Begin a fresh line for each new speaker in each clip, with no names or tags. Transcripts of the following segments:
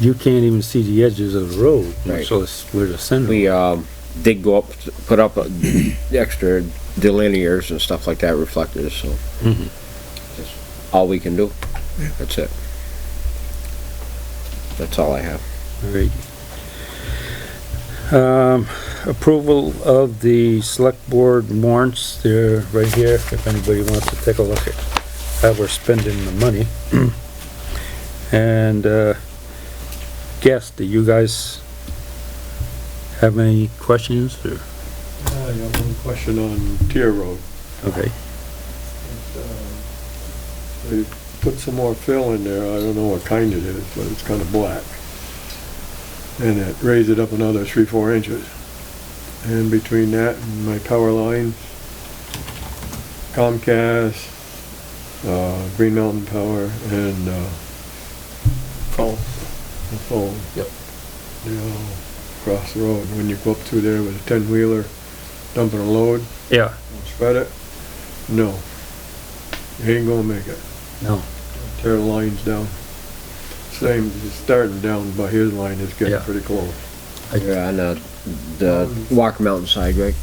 you can't even see the edges of the road,
Right.
so it's where the center.
We, um, did go up, put up uh, extra delinears and stuff like that, reflectors, so.
Mhm.
That's All we can do, that's it. That's all I have.
Great. Um, approval of the select board warrants, they're right here, if anybody wants to take a look at how we're spending the money. And, uh, guess, do you guys have any questions or,
Uh, I got one question on Tier Road.
okay,
They put some more fill in there, I don't know what kind it is, but it's kinda black. And it raised it up another three, four inches. And between that and my power lines, Comcast, uh, Green Mountain Power and, uh. Phone. The phone. Yep. They all cross the road. When you go up through there with a ten-wheeler dumping a load,
yeah,
Spread it? No. You ain't gonna make it.
no,
Tear the lines down. Same, it's starting down, but his line is getting
Yeah.
pretty close.
I-
You're on the, the Walker Mountain side, right?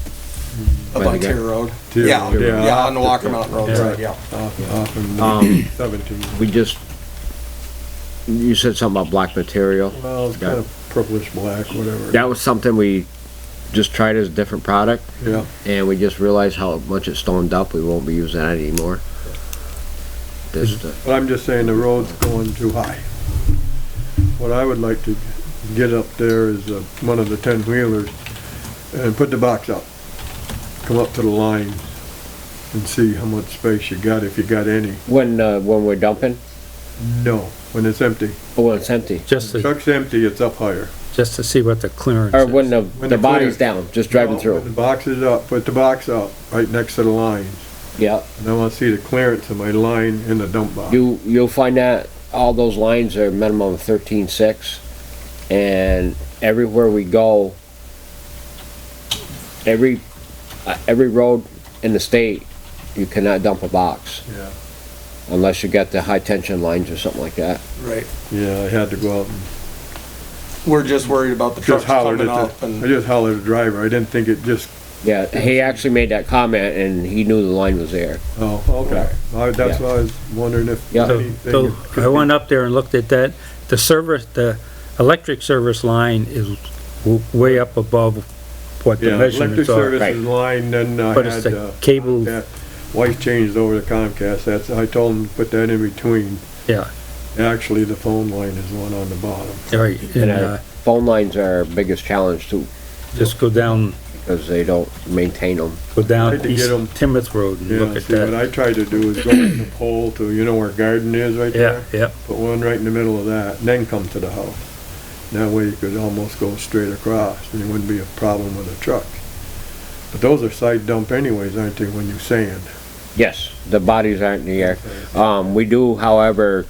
Up
By
on
the guy.
Tier Road.
Tier
Yeah,
Road.
yeah, on the
Yeah.
Walker Mountain Road,
Yeah.
right, yeah.
Off, off
Um,
in seventeen.
We just, you said something about black material.
Well, it's
yeah.
kinda purplish black, whatever.
That was something we just tried as a different product
Yeah,
and we just realized how much it stoned up. We won't be using that anymore. This, uh,
but I'm just saying the road's going too high. What I would like to get up there is uh, one of the ten-wheelers and put the box up. Come up to the line and see how much space you got, if you got any.
when, uh, when we're dumping,
No, when it's empty.
oh, when it's empty.
just to,
Truck's empty, it's up higher.
just to see what the clearance
Or when
is.
the,
When
the
they're
body's
clear.
down, just driving
Well, when
through.
The box is up, put the box up, right next to the line.
Yeah,
And I wanna see the clearance of my line in the dump box.
you, you'll find that all those lines are minimum thirteen six. And everywhere we go, every, uh, every road in the state, you cannot dump a box
Yeah,
unless you got the high tension lines or something like that.
Right.
yeah, I had to go out and
We're just worried about the trucks
just hollered
coming
at
up
the, I
and,
just hollered at the driver. I didn't think it just,
Yeah, he actually made that comment and he knew the line was there.
oh, okay. I, that's
Yeah.
why I was wondering if
Yeah.
So,
anything.
so I went up there and looked at that, the service, the electric service line is w- way up above what the
Yeah, electric
measurements are.
Right.
services line, then I
But it's
had,
the
uh,
cable,
that wife changed over to Comcast. That's, I told him to put that in between.
yeah,
Actually, the phone line is the one on the bottom.
right, and,
And our
uh,
phone lines are our biggest challenge too,
just go down,
because they don't maintain them.
go
Tried
down
to get
East
'em.
Timoth Road and look
Yeah,
at
see, what
that.
I tried to do is go from the pole to, you know where garden is right
Yeah,
there?
yeah,
Put one right in the middle of that, and then come to the house. That way you could almost go straight across, and it wouldn't be a problem with a truck. But those are side dump anyways, aren't they, when you sand?
Yes, the bodies aren't in the air. Um, we do, however,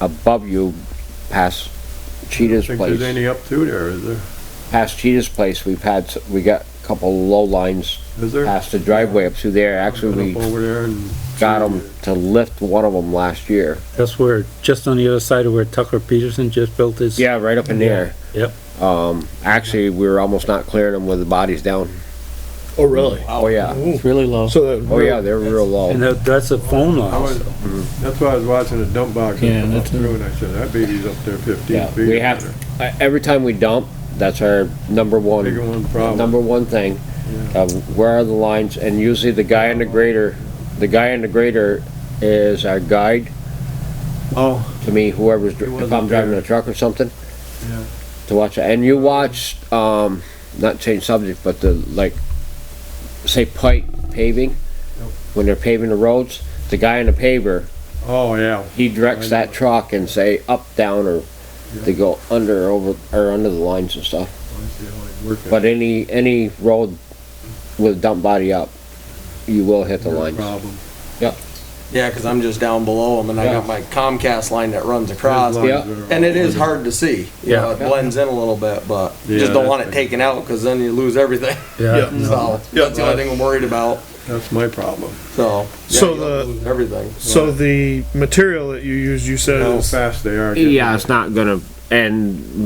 above you, past
I
Cheetah's
think there's
place,
any up through there, is there?
past Cheetah's place, we've had, s- we got a couple low lines
Is there?
past the driveway up through there. Actually,
Up
we
over there and.
got them to lift one of them last year.
that's where, just on the other side of where Tucker Peterson just built his.
Yeah, right up in there.
Yep,
Um, actually, we were almost not clearing them with the bodies down.
Oh, really?
Oh, yeah.
It's really low. So that.
Oh, yeah, they're real low.
and that- that's a phone line,
I was,
so.
that's why I was watching the dump box
Yeah,
and come up
that's a-
through, and I said, that baby's up there fifteen
Yeah,
feet.
we have, uh, every time we dump, that's our number
Bigger
one,
one problem.
number one thing. Uh, where are the lines? And usually the guy in the grader, the guy in the grader is our guide
Oh,
to me, whoever's, dri-
He
if I'm
wasn't
driving
there.
a truck or something,
yeah.
to watch it. And you watch, um, not change subject, but the, like, say pipe paving, when they're paving the roads, the guy in the paver,
Oh, yeah.
he directs that truck and say up, down, or they go under or over, or under the lines and stuff.
I see how it worked.
But any, any road with dump body up, you will hit the lines.
Problem.
yeah, cause I'm just down below them and I
Yeah.
got my Comcast line that runs across.
Those
Yeah.
lines are-
And it is hard to see, you know, it
Yeah.
blends in a little bit, but you
Yeah,
just don't want
that's
it
big.
taken out, cause then you lose everything.
yeah,
So, that's the only thing I'm worried about,
That's my problem.
so. yeah,
So
you don't
the-
lose Everything.
So the material that you use, you said
How
is,
fast they are.
Yeah, it's not gonna and